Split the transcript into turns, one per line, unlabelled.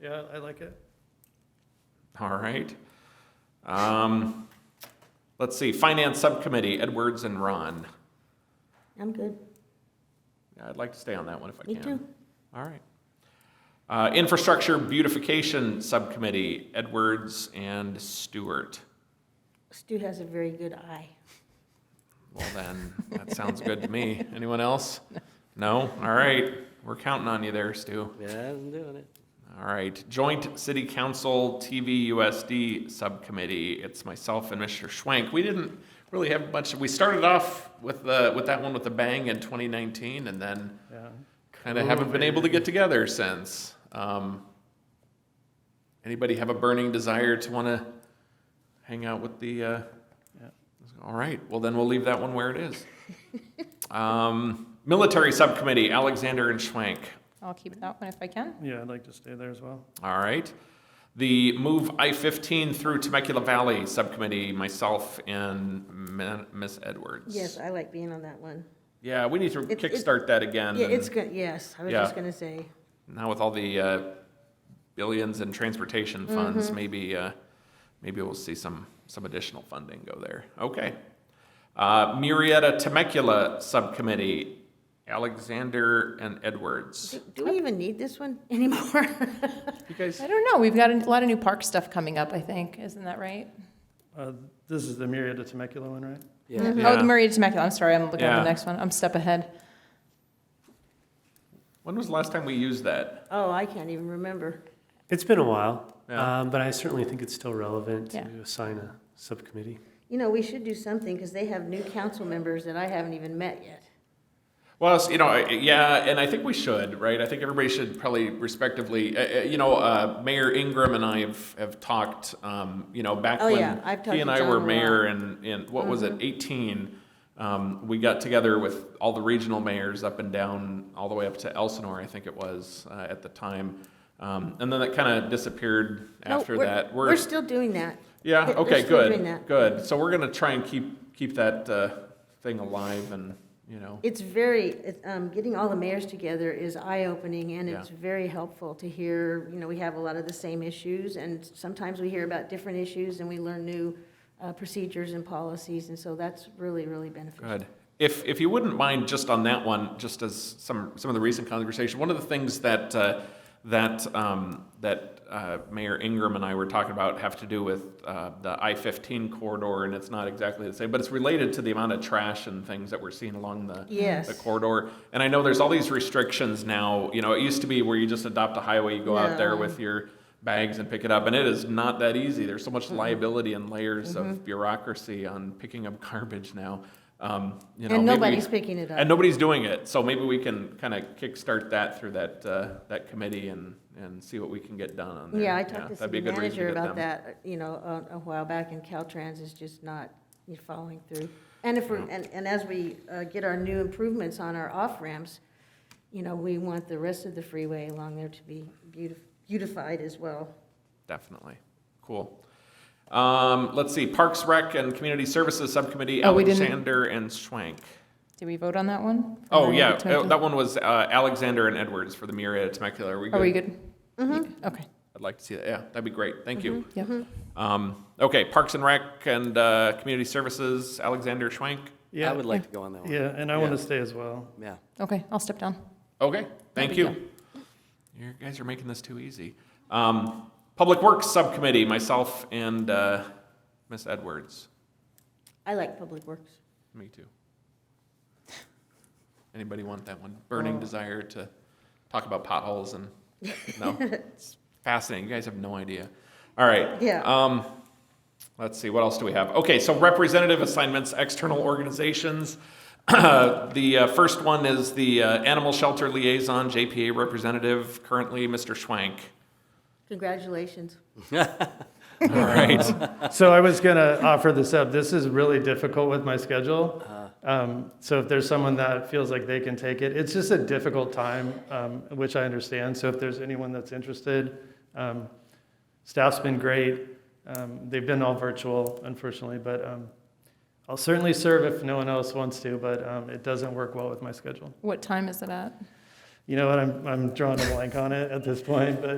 Yeah, I like it.
All right. Um, let's see, Finance Subcommittee, Edwards and Ron.
I'm good.
Yeah, I'd like to stay on that one if I
Me
can.
too.
All right. Uh, Infrastructure Beautification Subcommittee, Edwards and Stewart.
Stu has a very good eye.
Well, then, that sounds good to me. Anyone else? No? All right. We're counting on you there, Stu.
Yeah, I'm doing it.
All right. Joint City Council TVUSD Subcommittee. It's myself and Mr. Schwank. We didn't really have much. We started off with the with that one with a bang in 2019, and then
Yeah.
kind of haven't been able to get together since. Um, anybody have a burning desire to want to hang out with the? Uh,
Yeah.
All right. Well, then we'll leave that one where it is. um, military Subcommittee. Alexander and Schwank.
I'll keep that one if I can.
Yeah, I'd like to stay there as well.
All right. The Move I-15 through Temecula Valley Subcommittee, myself and Ma- Ms. Edwards.
Yes, I like being on that one.
Yeah, we need to
It's- it's-
kickstart that again.
Yeah,
and
it's good, yes, I was
Yeah.
just gonna say.
Now with all the uh, billions in transportation funds,
Mm-hmm.
maybe, uh, maybe we'll see some, some additional funding go there. Okay. Uh, Murrieta Temecula Subcommittee, Alexander and Edwards.
Do- Do we even need this one anymore?
You guys,
I don't know. We've got a lot of new park stuff coming up, I think. Isn't that right?
Uh, This is the Myriad of Temecula one, right?
Yeah.
Mm-hmm.
Yeah.
Oh, Maria Temecula. I'm sorry. I'm looking at
Yeah.
the next one. I'm step ahead.
when was the last time we used that?
Oh, I can't even remember.
It's been a while,
Yeah.
um, but I certainly think it's still relevant
Yeah.
to assign a subcommittee.
You know, we should do something, because they have new council members that I haven't even met yet.
Well, it's- you know, I- yeah, and I think we should, right? I think everybody should probably respectively, uh, uh, you know, uh, Mayor Ingram and I have, have talked, um, you know, back
Oh,
when
yeah, I've talked
he and
to
I
John
were
a lot. Mm-hmm.
mayor and, and what was it, 18? Um, we got together with all the regional mayors up and down, all the way up to Elsinore, I think it was uh, at the time. Um, and then that kind of disappeared
No,
after
we're-
that.
We're still doing that.
Yeah,
We're- we're
okay,
still doing
good,
that.
good. So we're going to try and keep, keep that uh, thing alive and, you know.
It's very, it- um, getting all the mayors together is eye-opening, and
Yeah.
it's very helpful to hear, you know, we have a lot of the same issues, and sometimes we hear about different issues, and we learn new uh, procedures and policies, and so that's really, really beneficial.
Good. If, if you wouldn't mind, just on that one, just as some, some of the recent conversation, one of the things that, uh, that, um, that uh, Mayor Ingram and I were talking about have to do with uh, the I-15 corridor, and it's not exactly the same, but it's related to the amount of trash and things that we're seeing along the,
Yes.
the corridor. And I know there's all these restrictions now, you know, it used to be where you just adopt a highway, you go out there
No.
with your bags and pick it up, and it is not that easy. There's so much
Mm-hmm.
liability and layers of bureaucracy on picking up garbage now. Um, you know,
And
maybe-
nobody's picking it
And
up.
nobody's doing it, so maybe we can kind of kickstart that through that, uh, that committee and, and see what we can get done on there.
Yeah, I talked to
that'd be
city
a good reason
manager
get them.
about that, uh, you know, a- a while back, and Caltrans is just not you know, following through. And if we're, and, and as we uh, get our new improvements on our off-ramps, you know, we want the rest of the freeway along there to be beautif- beautified as well.
Definitely. Cool. Um, let's see, Parks, Rec, and Community Services Subcommittee,
Oh, we didn't-
Alexander and Schwank.
Did we vote on that one?
Oh,
Maria
yeah,
Temecula?
uh, that one was uh, Alexander and Edwards for the Myriad Temecula. Are we
Are we
good?
good? Okay.
I'd like to see that. Yeah, that'd be great. Thank you.
Yep.
Um, Okay, Parks and Rec and uh, Community Services, Alexander Schwank.
I
Yeah,
would like to go on that one.
yeah, and I want
Yeah.
to stay as well.
Yeah.
Okay. I'll step down.
Okay, thank
big
you. You guys are making this too easy. Um, Public Works Subcommittee, myself and uh, Ms. Edwards.
I like Public Works.
Me too. Anybody want that one? Burning desire to talk about potholes and, no? It's fascinating. You guys have no idea. All right.
Yeah.
Um, let's see, what else do we have? Okay, so representative assignments, external organizations. The uh, first one is the uh, Animal Shelter Liaison, JPA representative, currently Mr. Schwank.
Congratulations.
All right.
So I was going to offer this up. This is really difficult with my schedule. Um, So if there's someone that feels like they can take it, it's just a difficult time, um, which I understand. So if there's anyone that's interested, um, staff's been great. Um, They've been all virtual, unfortunately, but um, I'll certainly serve if no one else wants to, but um, it doesn't work well with my schedule.
What time is it at?
You know what? I'm, I'm drawing a blank on it at this point, but